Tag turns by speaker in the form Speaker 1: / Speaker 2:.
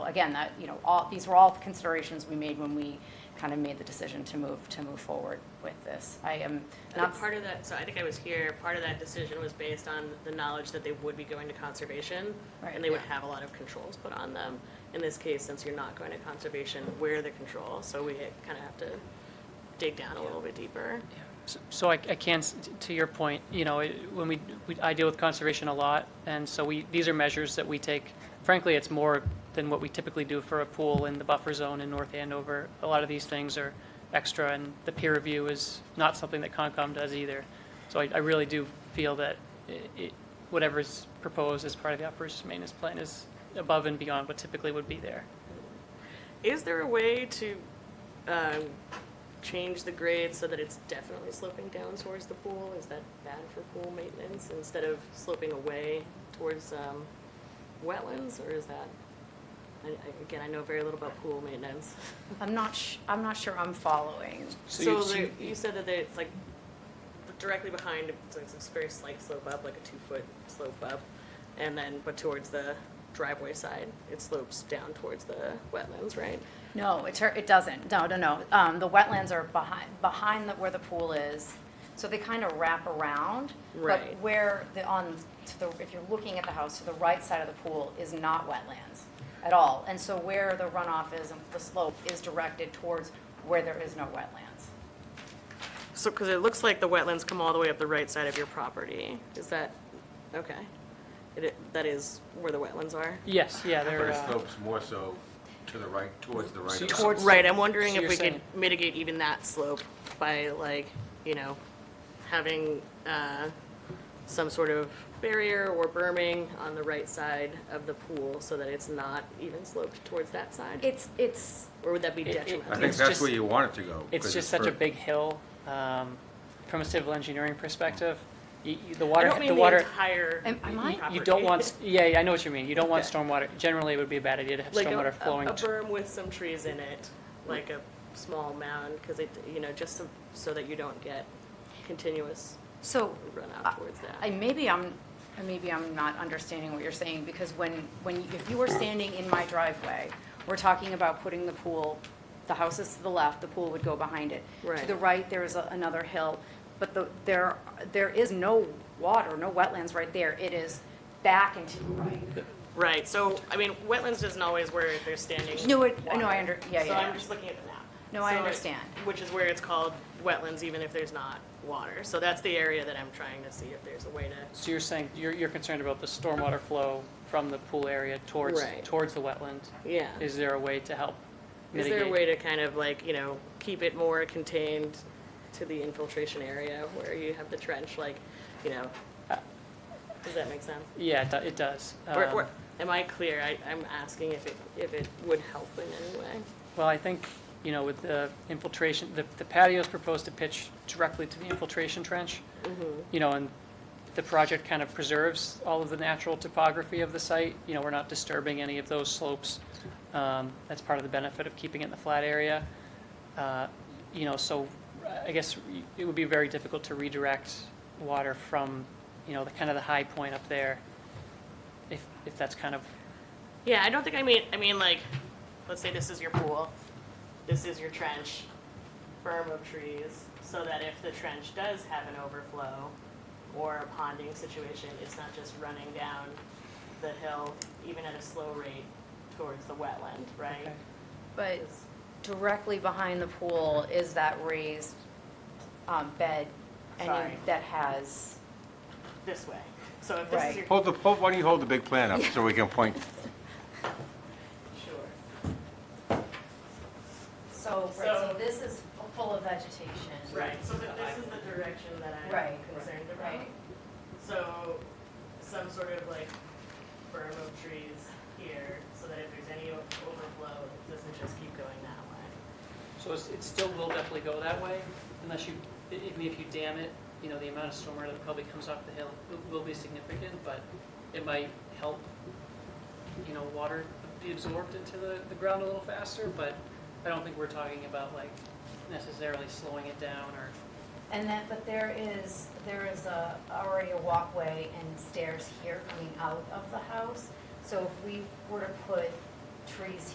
Speaker 1: again, that, you know, all, these were all considerations we made when we kind of made the decision to move, to move forward with this. I am
Speaker 2: I
Speaker 1: not.
Speaker 2: think part of that, so I think I was here, part of that decision was based on the knowledge that they would be going to conservation.
Speaker 1: Right.
Speaker 2: And they would
Speaker 1: Yeah.
Speaker 2: have a lot of controls put on them. In this case, since you're not going to conservation, we're the control, so we kind of have to dig down a little bit deeper.
Speaker 3: Yeah. S- So I, I can, s- t- to your point, you know, it- when we, we- I deal with conservation a lot, and so we, these are measures that we take. Frankly, it's more than what we typically do for a pool in the buffer zone in North Andover. A lot of these things are extra, and the peer review is not something that Concom does either. So I, I really do feel that i- it, whatever's proposed as part of the operations maintenance plan is above and beyond what typically would be there.
Speaker 2: Is there a way to um, change the grade so that it's definitely sloping down towards the pool? Is that bad for pool maintenance instead of sloping away towards um, wetlands, or is that? I- I- Again, I know very little about pool maintenance.
Speaker 1: I'm not, sh- I'm not sure I'm following.
Speaker 2: So there- you said that it's like directly behind, it's like this very slight slope up, like a two-foot slope up, and then, but towards the driveway side, it slopes down towards the wetlands, right?
Speaker 1: No, it, tur- it doesn't. No, no, no. Um, the wetlands are behind, behind the, where the pool is. So they kind of wrap around.
Speaker 2: Right.
Speaker 1: But where the, on, to the, if you're looking at the house, to the right side of the pool is not wetlands at all. And so where the runoff is and the slope is directed towards where there is no wetlands.
Speaker 2: So, because it looks like the wetlands come all the way up the right side of your property. Is that, okay. It- It, that is where the wetlands are?
Speaker 3: Yes, yeah,
Speaker 4: But
Speaker 3: they're,
Speaker 4: it
Speaker 3: uh,
Speaker 4: slopes more so to the right, towards the right.
Speaker 3: So-
Speaker 4: of-
Speaker 3: Towards-
Speaker 2: Right, I'm wondering if
Speaker 3: So you're
Speaker 2: we could
Speaker 3: saying-
Speaker 2: mitigate even that slope by like, you know, having uh, some sort of barrier or berming on the right side of the pool so that it's not even sloped towards that side?
Speaker 1: It's, it's,
Speaker 2: Or would that be
Speaker 3: It- it-
Speaker 4: I
Speaker 2: detrimental?
Speaker 4: think
Speaker 3: It's
Speaker 4: that's
Speaker 3: just-
Speaker 4: where you want it to go.
Speaker 3: It's
Speaker 4: 'cause
Speaker 3: just such a
Speaker 4: for-
Speaker 3: big hill, um, from a civil engineering perspective. y- y- The
Speaker 2: I
Speaker 3: water,
Speaker 2: don't mean
Speaker 3: the
Speaker 2: the
Speaker 3: water,
Speaker 2: entire
Speaker 1: Am- am I-
Speaker 3: you don't want, s-
Speaker 2: property.
Speaker 3: yeah, yeah, I know what you mean. You don't want
Speaker 2: Okay.
Speaker 3: stormwater, generally it would be a bad idea to have
Speaker 2: Like a-
Speaker 3: stormwater
Speaker 2: a-
Speaker 3: flowing.
Speaker 2: A
Speaker 3: t-
Speaker 2: berm with some trees in it, like a small mound, because it, you know, just so- so that you don't get continuous
Speaker 1: so
Speaker 2: runoff towards that.
Speaker 1: Uh, I, maybe I'm, and maybe I'm not understanding what you're saying, because when, when, if you were standing in my driveway, we're talking about putting the pool, the house is to the left, the pool would go behind it. To
Speaker 2: Right.
Speaker 1: the right, there is a- another hill, but the, there, there is no water, no wetlands right there, it is back and to the right.
Speaker 2: Right, so, I mean, wetlands isn't always where they're standing.
Speaker 1: No, it- I know, I
Speaker 2: water.
Speaker 1: under- yeah,
Speaker 2: So
Speaker 1: yeah,
Speaker 2: I'm
Speaker 1: yeah.
Speaker 2: just looking at the map.
Speaker 1: No, I
Speaker 2: So it-
Speaker 1: understand.
Speaker 2: Which is where it's called wetlands, even if there's not water. So that's the area that I'm trying to see if there's a way to.
Speaker 3: So you're saying, you're, you're concerned about the stormwater flow from the pool area towards,
Speaker 2: Right.
Speaker 3: towards the wetland?
Speaker 2: Yeah.
Speaker 3: Is there a way to help
Speaker 2: Is
Speaker 3: mitigate?
Speaker 2: there a way to kind of like, you know, keep it more contained to the infiltration area where you have the trench, like, you know? Does that make sense?
Speaker 3: Yeah, it do- it does.
Speaker 2: Or,
Speaker 3: Um,
Speaker 2: or, am I clear? I, I'm asking if it, if it would help in any way.
Speaker 3: Well, I think, you know, with the infiltration, the the patio's proposed to pitch directly to the infiltration trench. You know, and the project kind of preserves all of the natural topography of the site. You know, we're not disturbing any of those slopes. Um, That's part of the benefit of keeping it in the flat area. Uh, You know, so I guess it would be very difficult to redirect water from, you know, the kind of the high point up there, if, if that's kind of,
Speaker 2: Yeah, I don't think I mean, I mean, like, let's say this is your pool, this is your trench, berm of trees, so that if the trench does have an overflow or a ponding situation, it's not just running down the hill, even at a slow rate, towards the wetland, right?
Speaker 3: Okay.
Speaker 1: But directly behind the pool is that raised, um, bed, and
Speaker 2: Sorry.
Speaker 1: you- that has,
Speaker 2: This way. So if this is your.
Speaker 4: Hold the, hold- why don't you hold the big plan up so we can point?
Speaker 2: Sure.
Speaker 1: so, right, so this is full of vegetation.
Speaker 2: Right, so th- this is the direction that I'm
Speaker 1: Right.
Speaker 2: concerned about.
Speaker 1: Right.
Speaker 2: So, some sort of like berm of trees here, so that if there's any o- overflow, it doesn't just keep going that way.
Speaker 3: So it's, it still will definitely go that way unless you, I I mean, if you dam it, you know, the amount of stormwater that probably comes off the hill will- will be significant, but it might help, you know, water be absorbed into the, the ground a little faster, but I don't think we're talking about like necessarily slowing it down or,
Speaker 1: And then, but there is, there is a, already a walkway and stairs here coming out of the house. So if we were to put trees